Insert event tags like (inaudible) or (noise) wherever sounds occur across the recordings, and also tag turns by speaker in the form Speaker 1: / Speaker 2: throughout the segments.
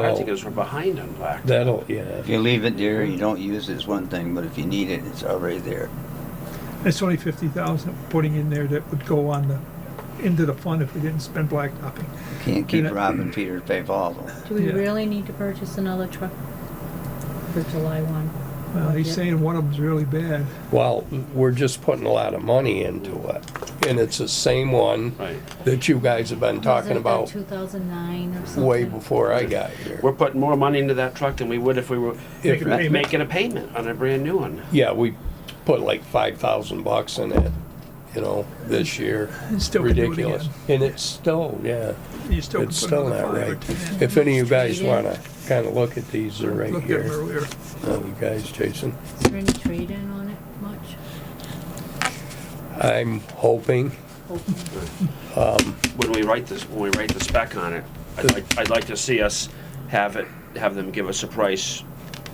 Speaker 1: I think
Speaker 2: Well,
Speaker 1: it's behind on black.
Speaker 2: that'll, yeah,
Speaker 3: If you leave it there, you don't use it, it's one thing, but if you need it, it's already there.
Speaker 4: It's only fifty thousand putting in there that would go on the, into the fund if we didn't spend blacktopping.
Speaker 3: You can't keep
Speaker 4: Yeah.
Speaker 3: robbing Peter to pay Paul. though.
Speaker 5: Do we
Speaker 4: Yeah.
Speaker 5: really need to purchase another truck for July one?
Speaker 4: Well, he's
Speaker 5: Yeah.
Speaker 4: saying one of them's really bad.
Speaker 2: well, we're just putting a lot of money into it. And it's the same one
Speaker 1: Right.
Speaker 2: that you guys have been talking about
Speaker 5: Two thousand nine or something.
Speaker 2: way before I got here.
Speaker 1: We're putting more money into that truck than we would if we were
Speaker 2: If-
Speaker 4: Making a payment.
Speaker 1: making a payment on a brand new one.
Speaker 2: Yeah, we put like five thousand bucks in it, you know, this year.
Speaker 4: And (laughs) still could do it
Speaker 2: Ridiculous. And it's still, yeah,
Speaker 4: You still could
Speaker 2: it's
Speaker 4: put
Speaker 2: still
Speaker 4: another
Speaker 2: not right.
Speaker 4: five.
Speaker 2: If any of you guys wanna kinda look at these, they're (laughs) right
Speaker 4: Looked at them
Speaker 2: here.
Speaker 4: earlier.
Speaker 2: Uh, You guys, Jason,
Speaker 5: Is there any trade-in on it much?
Speaker 2: I'm hoping
Speaker 5: Hopefully.
Speaker 1: When we write this, when we write the spec on it, I'd like, I'd like to see us have it, have them give us a price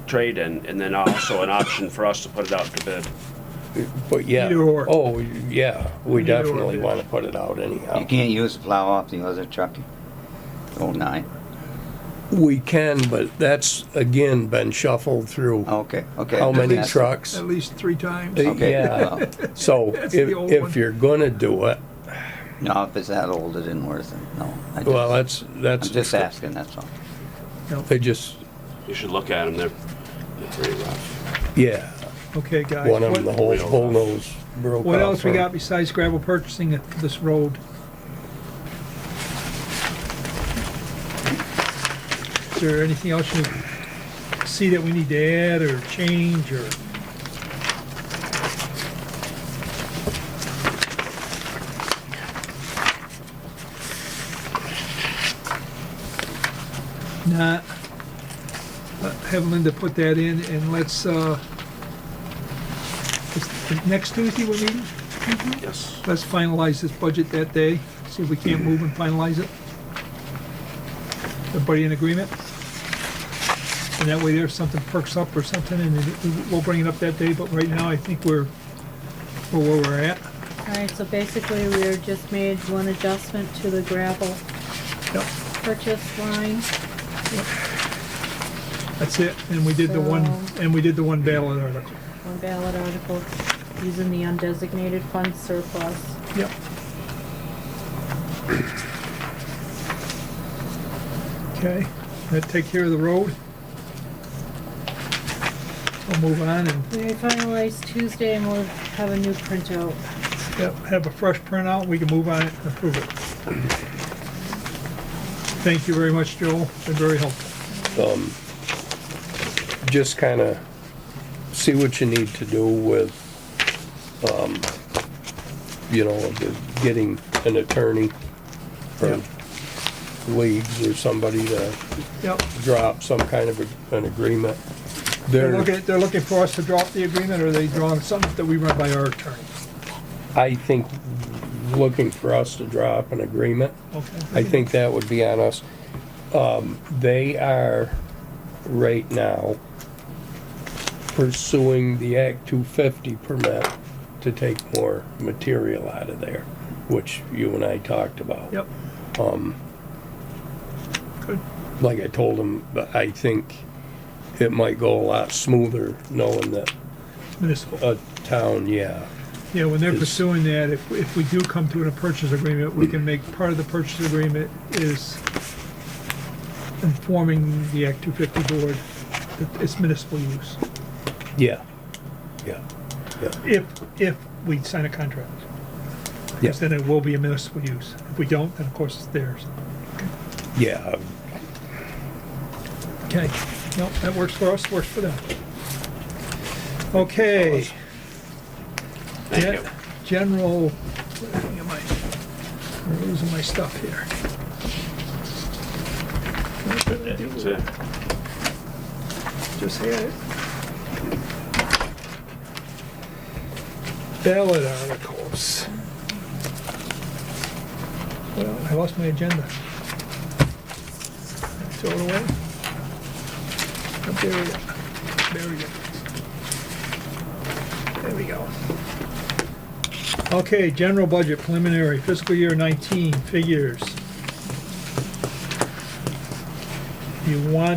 Speaker 1: trade-in, and then also an option for us to put it out to bid.
Speaker 2: But yeah.
Speaker 4: Either or.
Speaker 2: Oh, yeah, we
Speaker 4: Either or,
Speaker 2: definitely
Speaker 4: yeah.
Speaker 2: want to put it out
Speaker 3: You
Speaker 2: anyhow.
Speaker 3: can't use the plow off the other truck. Oh, nine.
Speaker 2: We can, but that's again been shuffled through
Speaker 3: Okay, Oh, okay.
Speaker 2: how many
Speaker 3: That's-
Speaker 2: trucks?
Speaker 4: At least three times.
Speaker 2: Uh,
Speaker 3: Okay,
Speaker 2: Yeah.
Speaker 3: well,
Speaker 2: So if,
Speaker 4: That's the old one.
Speaker 2: if you're gonna do it,
Speaker 3: no, if it's that old, it isn't worth it, no. I just-
Speaker 2: well, that's, that's.
Speaker 3: I'm just asking, that's all.
Speaker 2: They just,
Speaker 1: You should look at them, they're, they're pretty rough.
Speaker 2: yeah,
Speaker 4: Okay, guys.
Speaker 2: one of them, the
Speaker 4: what-
Speaker 2: whole, whole nose broke off.
Speaker 4: What else we
Speaker 2: her.
Speaker 4: got besides gravel purchasing it for this road? Is there anything else you see that we need to add or change or? Not, uh, have Linda put that in and let's, uh, is- next Tuesday we're meeting?
Speaker 1: Yes.
Speaker 4: Let's finalize this budget that day, see if we can't move and finalize it. Everybody in agreement? And that way there, if something perks up or something, and it- we'll bring it up that day, but right now, I think we're, we're where we're at.
Speaker 5: All right, so basically, we're just made one adjustment to the gravel
Speaker 4: Yep.
Speaker 5: purchase line.
Speaker 4: That's it, and we did the one,
Speaker 5: So-
Speaker 4: and we did the one ballot article.
Speaker 5: One ballot article using the undesignated fund surplus.
Speaker 4: Yep. Okay, that take care of the road. We'll move on and
Speaker 5: We finalize Tuesday and we'll have a new printout.
Speaker 4: Yep, have a fresh printout, we can move on it and approve it. Thank you very much, Joel, been very helpful.
Speaker 2: um, just kind of see what you need to do with, um, you know, the- getting an attorney from leagues or somebody to
Speaker 4: Yep,
Speaker 2: drop some kind of a- an agreement.
Speaker 4: they're
Speaker 2: There,
Speaker 4: looking, they're looking for us to drop the agreement, or are they drawing something that we run by our attorney?
Speaker 2: I think, looking for us to drop an agreement.
Speaker 4: Okay.
Speaker 2: I think that would be on us. Um, They are right now pursuing the Act 250 permit to take more material out of there, which you and I talked about. Um,
Speaker 4: Yep. Good,
Speaker 2: Like I told them, but I think it might go a lot smoother knowing that
Speaker 4: municipal.
Speaker 2: a town, yeah,
Speaker 4: Yeah, when they're
Speaker 2: is-
Speaker 4: pursuing that, if, if we do come to a purchase agreement, we can make, part of the purchase agreement is informing the Act 250 board that it's municipal use,
Speaker 2: yeah, yeah, yeah.
Speaker 4: if, if we sign a contract.
Speaker 2: yeah.
Speaker 4: Because then it will be a municipal use. If we don't, then of course it's theirs.
Speaker 2: Yeah,
Speaker 4: Okay. No, that works for us, works for them. Okay.
Speaker 1: Thank you.
Speaker 4: Gen- General, where am I? I'm losing my stuff here.
Speaker 1: That's it.
Speaker 4: Just had it. Ballot articles. Well, I lost my agenda. Throw it away. I buried it. Buried it. There we go. Okay, general budget preliminary fiscal year 19 figures. you want